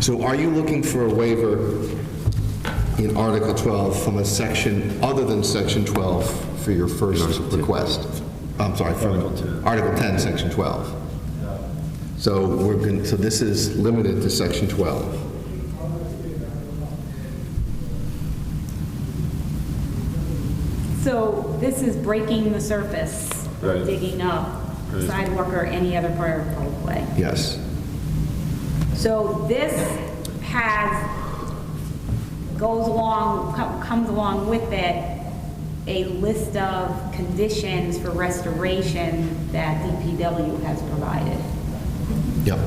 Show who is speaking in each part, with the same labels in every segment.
Speaker 1: So are you looking for a waiver in Article 12 from a section other than Section 12 for your first request? I'm sorry, from Article 10, Section 12? So we're going, so this is limited to Section 12?
Speaker 2: So this is breaking the surface,
Speaker 3: Right.
Speaker 2: digging up sidewalk or any other part of the right of way.
Speaker 1: Yes.
Speaker 2: So this has, goes along, co- comes along with it, a list of conditions for restoration that DPW has provided.
Speaker 1: Yep.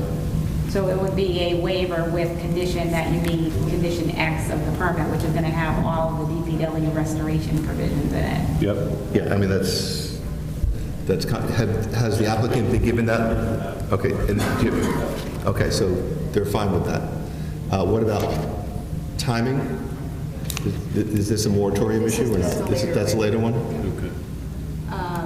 Speaker 2: So it would be a waiver with condition that you meet condition X of the permit, which is going to have all of the DPW restoration provisions in it.
Speaker 3: Yep.
Speaker 1: Yeah, I mean, that's, that's, con- have- has the applicant been given that? Okay, and, do you- okay, so they're fine with that. Uh, What about timing? Is- Is this a moratorium issue or not? This is- That's a later one?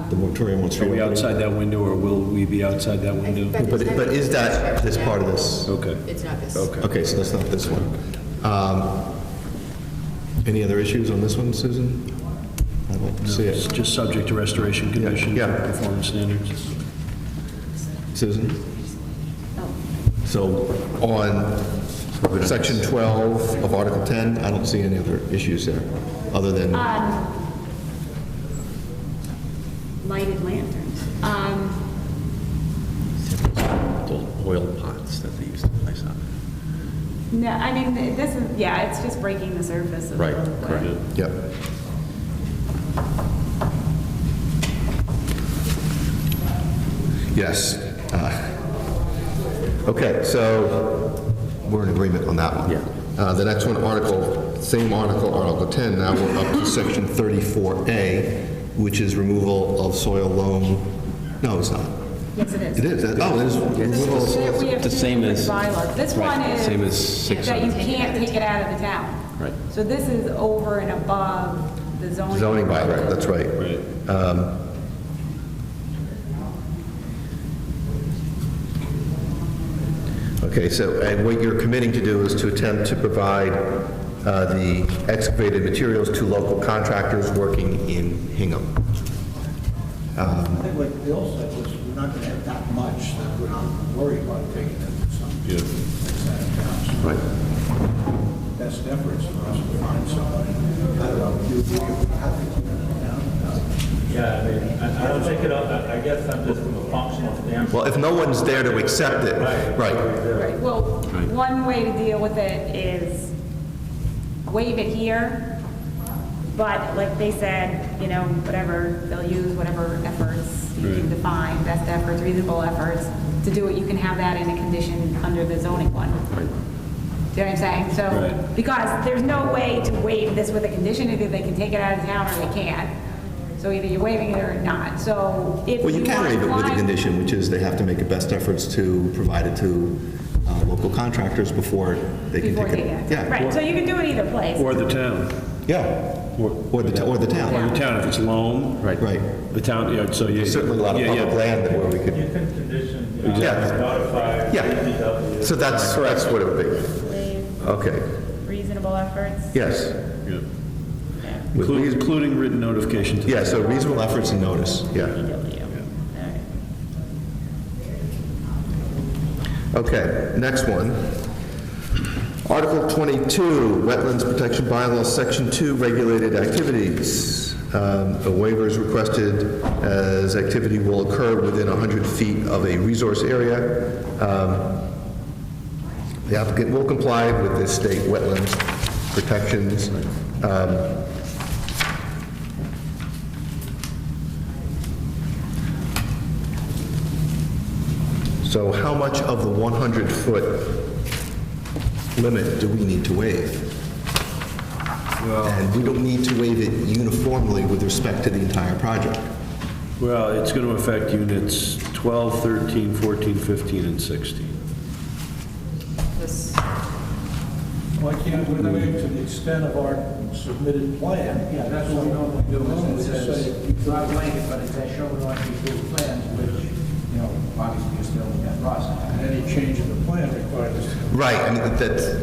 Speaker 1: The moratorium one's.
Speaker 3: Are we outside that window, or will we be outside that window?
Speaker 1: But, but is that, this part of this?
Speaker 3: Okay.
Speaker 4: It's not this.
Speaker 1: Okay, so that's not this one. Um, Any other issues on this one, Susan? I don't see
Speaker 3: It's
Speaker 1: it.
Speaker 3: just subject to restoration conditions,
Speaker 1: yeah.
Speaker 3: and performance standards.
Speaker 1: Susan? So on section 12 of Article 10, I don't see any other issues there, other than,
Speaker 2: Lighted lanterns. Um,
Speaker 5: Those oil pots that they used to place on.
Speaker 2: No, I mean, th- this is, yeah, it's just breaking the surface of the
Speaker 5: Right,
Speaker 2: roadway.
Speaker 5: correct.
Speaker 1: yep. Yes. uh, Okay, so we're in agreement on that one.
Speaker 5: Yeah.
Speaker 1: Uh, The next one, article, same article, Article 10, now we're up to section 34A, which is removal of soil loam. No, it's not.
Speaker 2: Yes, it
Speaker 1: It
Speaker 2: is.
Speaker 1: is, uh, oh, it is removal of soil.
Speaker 2: We have
Speaker 5: The
Speaker 2: to
Speaker 5: same
Speaker 2: do it
Speaker 5: as-
Speaker 2: by bylaw. This
Speaker 5: right,
Speaker 2: one is.
Speaker 5: same as six
Speaker 2: That you
Speaker 5: hundred.
Speaker 2: can't take it out of the town.
Speaker 5: Right.
Speaker 2: So this is over and above the zoning.
Speaker 1: Zoning by, right, that's right. Um, Okay, so, and what you're committing to do is to attempt to provide uh, the excavated materials to local contractors working in Hingham.
Speaker 6: I think like Bill said, was we're not gonna have that much, that we're not worried about taking it to some place out of town.
Speaker 1: Right.
Speaker 6: Best efforts for us to find somebody. I don't know, do you, how do you know
Speaker 7: Yeah, I mean, I I don't think it, I I guess I'm just from a functional standpoint.
Speaker 1: Well, if no one's there to accept it, right,
Speaker 2: Right, well, one way to deal with it is waive it here, but like they said, you know, whatever, they'll use whatever efforts you can define, best efforts, reasonable efforts, to do it, you can have that in a condition under the zoning one. Do you know what I'm saying? So,
Speaker 3: Right.
Speaker 2: because there's no way to waive this with a condition, either they can take it out of town or they can't. So either you're waiving it or not, so if you
Speaker 1: Well, you can
Speaker 2: want to
Speaker 1: waive it with a
Speaker 2: climb-
Speaker 1: condition, which is they have to make the best efforts to provide it to uh, local contractors before they can
Speaker 2: Before
Speaker 1: take it.
Speaker 2: they get.
Speaker 1: Yeah.
Speaker 2: Right, so you can do it either place.
Speaker 3: Or the town,
Speaker 1: Yeah, or the, t- or the
Speaker 3: or
Speaker 1: town,
Speaker 3: the town, if it's loam.
Speaker 5: Right.
Speaker 1: right.
Speaker 3: The town, yeah, so you.
Speaker 1: There's certainly a lot of
Speaker 3: yeah, yeah.
Speaker 1: public land that where we
Speaker 7: You
Speaker 1: could,
Speaker 7: can condition,
Speaker 1: Yeah.
Speaker 7: uh, notify
Speaker 1: yeah. So
Speaker 7: DPW.
Speaker 1: that's, that's what it would be. Okay,
Speaker 2: reasonable efforts?
Speaker 1: yes.
Speaker 3: Yeah.
Speaker 1: With
Speaker 3: Inclu-
Speaker 1: reas-
Speaker 3: Including written notification to the
Speaker 1: Yeah, so reasonable efforts and notice, yeah. Okay, next one. Article 22, Wetlands Protection Bylaw, Section 2, Regulated Activities. Um, A waiver is requested as activity will occur within 100 feet of a resource area. Um, The applicant will comply with the state wetlands protections. Um, So how much of the 100-foot limit do we need to waive? And we don't need to waive it uniformly with respect to the entire project.
Speaker 3: Well, it's going to affect units 12, 13, 14, 15, and 16.
Speaker 4: This,
Speaker 6: Why can't we do it to the extent of our submitted plan? Yeah, that's what we normally do, is it says. It's not blanket, but it's shown on your plan, which you know, obviously you're still in that process. And any change in the plan requires us to
Speaker 1: Right, I mean, that's,